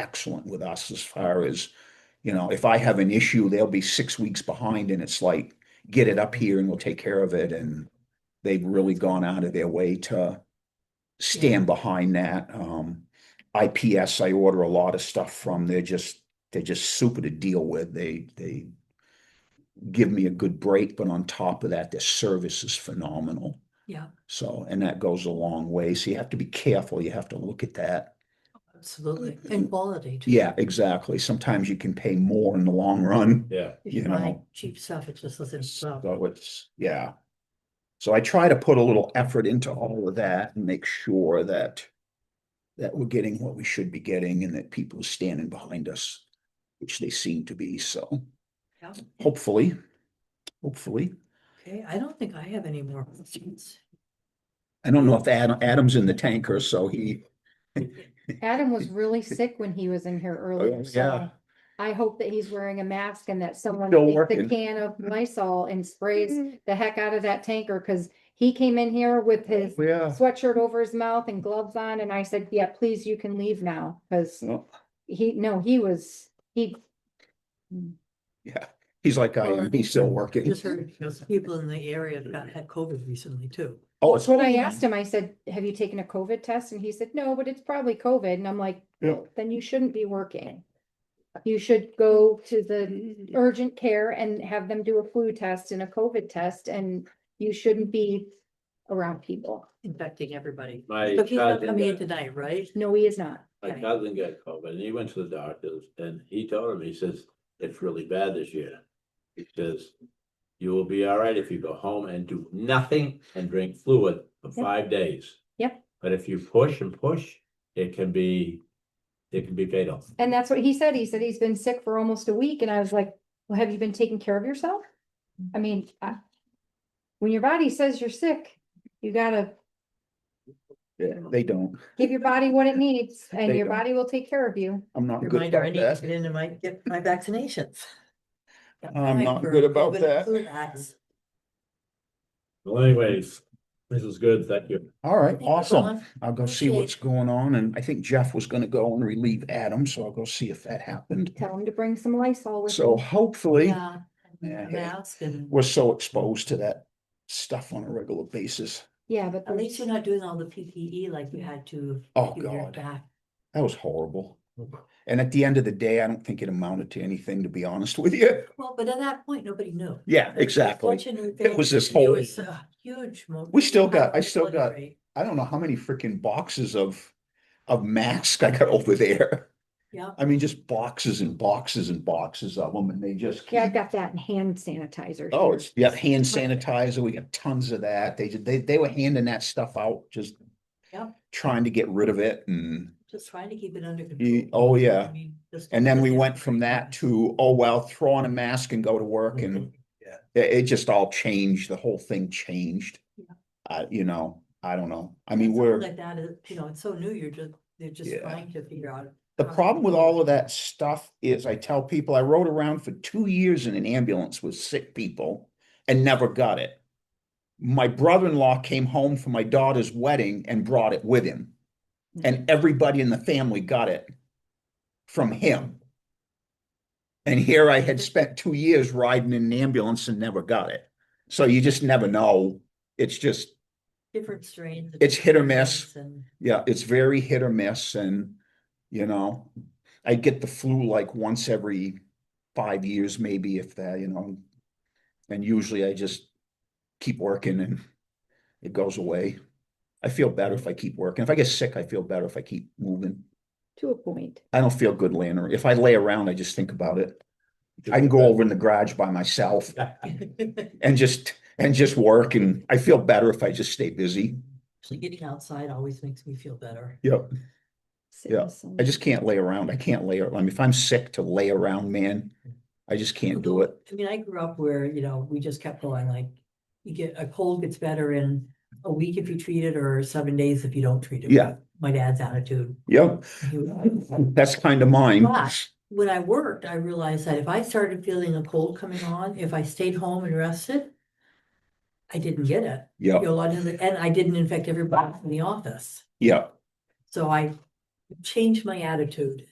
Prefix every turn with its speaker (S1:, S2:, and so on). S1: excellent with us as far as, you know, if I have an issue, they'll be six weeks behind and it's like, get it up here and we'll take care of it. And they've really gone out of their way to stand behind that. Um, IPS, I order a lot of stuff from. They're just, they're just super to deal with. They, they give me a good break, but on top of that, their service is phenomenal.
S2: Yeah.
S1: So, and that goes a long way. So you have to be careful. You have to look at that.
S2: Absolutely, and quality too.
S1: Yeah, exactly. Sometimes you can pay more in the long run.
S3: Yeah,
S2: If you
S1: you
S2: buy
S1: know.
S2: cheap stuff, it just doesn't sell.
S1: So it's, yeah. So I try to put a little effort into all of that and make sure that that we're getting what we should be getting and that people are standing behind us, which they seem to be. So
S2: Yeah.
S1: hopefully, hopefully.
S2: Okay, I don't think I have any more questions.
S1: I don't know if Adam, Adam's in the tanker, so he,
S4: Adam was really sick when he was in here earlier,
S1: Oh, yeah.
S4: so I hope that he's wearing a mask and that someone
S1: Still
S4: takes
S1: working.
S4: the can of Lysol and sprays the heck out of that tanker, because he came in here with his
S1: yeah.
S4: sweatshirt over his mouth and gloves on, and I said, yeah, please, you can leave now, because
S1: Well,
S4: he, no, he was, he,
S1: yeah, he's like I am. He's still working.
S2: Just heard those people in the area that got had COVID recently too.
S1: Oh,
S4: that's
S1: it's,
S4: what I asked him, I said, have you taken a COVID test? And he said, no, but it's probably COVID, and I'm like,
S1: Yeah.
S4: then you shouldn't be working. You should go to the urgent care and have them do a flu test and a COVID test, and you shouldn't be around people.
S2: Infecting everybody.
S3: my
S2: But he's not
S3: cousin,
S2: coming in
S3: got-
S2: tonight, right?
S4: No, he is not.
S3: my
S2: okay.
S3: cousin got COVID and he went to the doctors and he told him, he says, it's really bad this year. He says, you will be all right if you go home and do nothing and drink fluid for
S4: Yep.
S3: five days.
S4: Yep.
S3: But if you push and push, it can be, it can be fatal.
S4: And that's what he said. He said he's been sick for almost a week, and I was like, well, have you been taking care of yourself? I mean, I- when your body says you're sick, you gotta
S1: yeah, they don't.
S4: give your body what it needs, and
S1: They
S4: your
S1: don't.
S4: body will take care of you.
S1: I'm not good
S2: Reminder, I
S1: about
S2: need to
S1: that.
S2: get into my, get my vaccinations. Got
S1: I'm
S2: time
S1: not
S2: for
S1: good about
S2: COVID and
S1: that.
S2: flu vax.
S3: Well, anyways, this is good. Thank you.
S1: All right,
S2: Thank you,
S1: awesome.
S2: Dawn.
S1: I'll go see
S2: Okay.
S1: what's going on. And I think Jeff was gonna go and relieve Adam, so I'll go see if that happened.
S4: Tell him to bring some Lysol with
S1: So
S4: him.
S1: hopefully,
S2: Yeah.
S1: Yeah.
S2: Mask and,
S1: we're so exposed to that stuff on a regular basis.
S4: Yeah, but
S2: at least you're not doing all the PPE like you had to.
S1: Oh,
S2: a year
S1: God.
S2: back.
S1: That was horrible. And at the end of the day, I don't think it amounted to anything, to be honest with you.
S2: Well, but at that point, nobody knew.
S1: Yeah, exactly.
S2: Fortunately,
S1: It was this
S2: there
S1: whole-
S2: was a Huge. mo-
S1: We still got- I
S2: huge
S1: still got-
S2: military.
S1: I don't know how many freaking boxes of of masks I got over there.
S2: Yeah,
S1: I mean, just boxes and boxes and boxes of them, and they just
S4: Yeah, I've
S1: keep.
S4: got that in hand sanitizer.
S1: Oh,
S4: here.
S1: it's, yeah, hand sanitizer. We got tons of that. They, ju- they, they were handing that stuff out, just
S2: Yep.
S1: trying to get rid of it and,
S2: just trying to keep it under
S1: Ye-
S2: control.
S1: oh,
S2: I
S1: yeah.
S2: mean, just
S1: And then we
S2: really
S1: went from that to, oh, well, throw on a mask and go to work
S2: Mm-hmm.
S1: and it, it just all changed. The whole thing changed.
S2: Yeah.
S1: Uh, you know, I don't know. I mean,
S2: Something
S1: we're.
S2: Like that is, you know, it's so new, you're just, they're just
S1: Yeah.
S2: trying to figure out.
S1: The
S2: how to
S1: problem with
S2: control
S1: all of
S2: it.
S1: that stuff is I tell people I rode around for two years in an ambulance with sick people and never got it. My brother-in-law came home for my daughter's wedding and brought it with him. And everybody in the family got it from him. And here I had spent two years riding in an ambulance and never got it. So you just never know. It's just,
S2: Different strains. and
S1: It's hit or
S2: different
S1: miss.
S2: things and-
S1: yeah, it's very hit or miss and, you know, I get the flu like once every five years, maybe if that, you know. And usually I just keep working and it goes away. I feel better if I keep working. If I get sick, I feel better if I keep moving.
S4: To a point.
S1: I don't feel good laying around. If I lay around, I just think about it. I can go over in the garage by myself and just, and just work and I feel better if I just stay busy.
S2: Actually, getting outside always makes me feel better.
S1: Yep.
S4: Sit in
S1: Yeah,
S4: some-
S1: I just can't lay around. I can't lay, ar- I mean, if I'm sick to lay around, man, I just can't do it.
S2: I mean, I grew up where, you know, we just kept going like, you get, a cold gets better in a week if you treat it or seven days if you don't treat it.
S1: Yeah.
S2: My dad's attitude.
S1: Yep,
S2: He was-
S1: that's kind of mine.
S2: But- When I worked, I realized that if I started feeling a cold coming on, if I stayed home and rested, I didn't get it. You
S1: Yep,
S2: know, a lot of the, and I didn't infect everybody in the office.
S1: yep,
S2: So I changed my attitude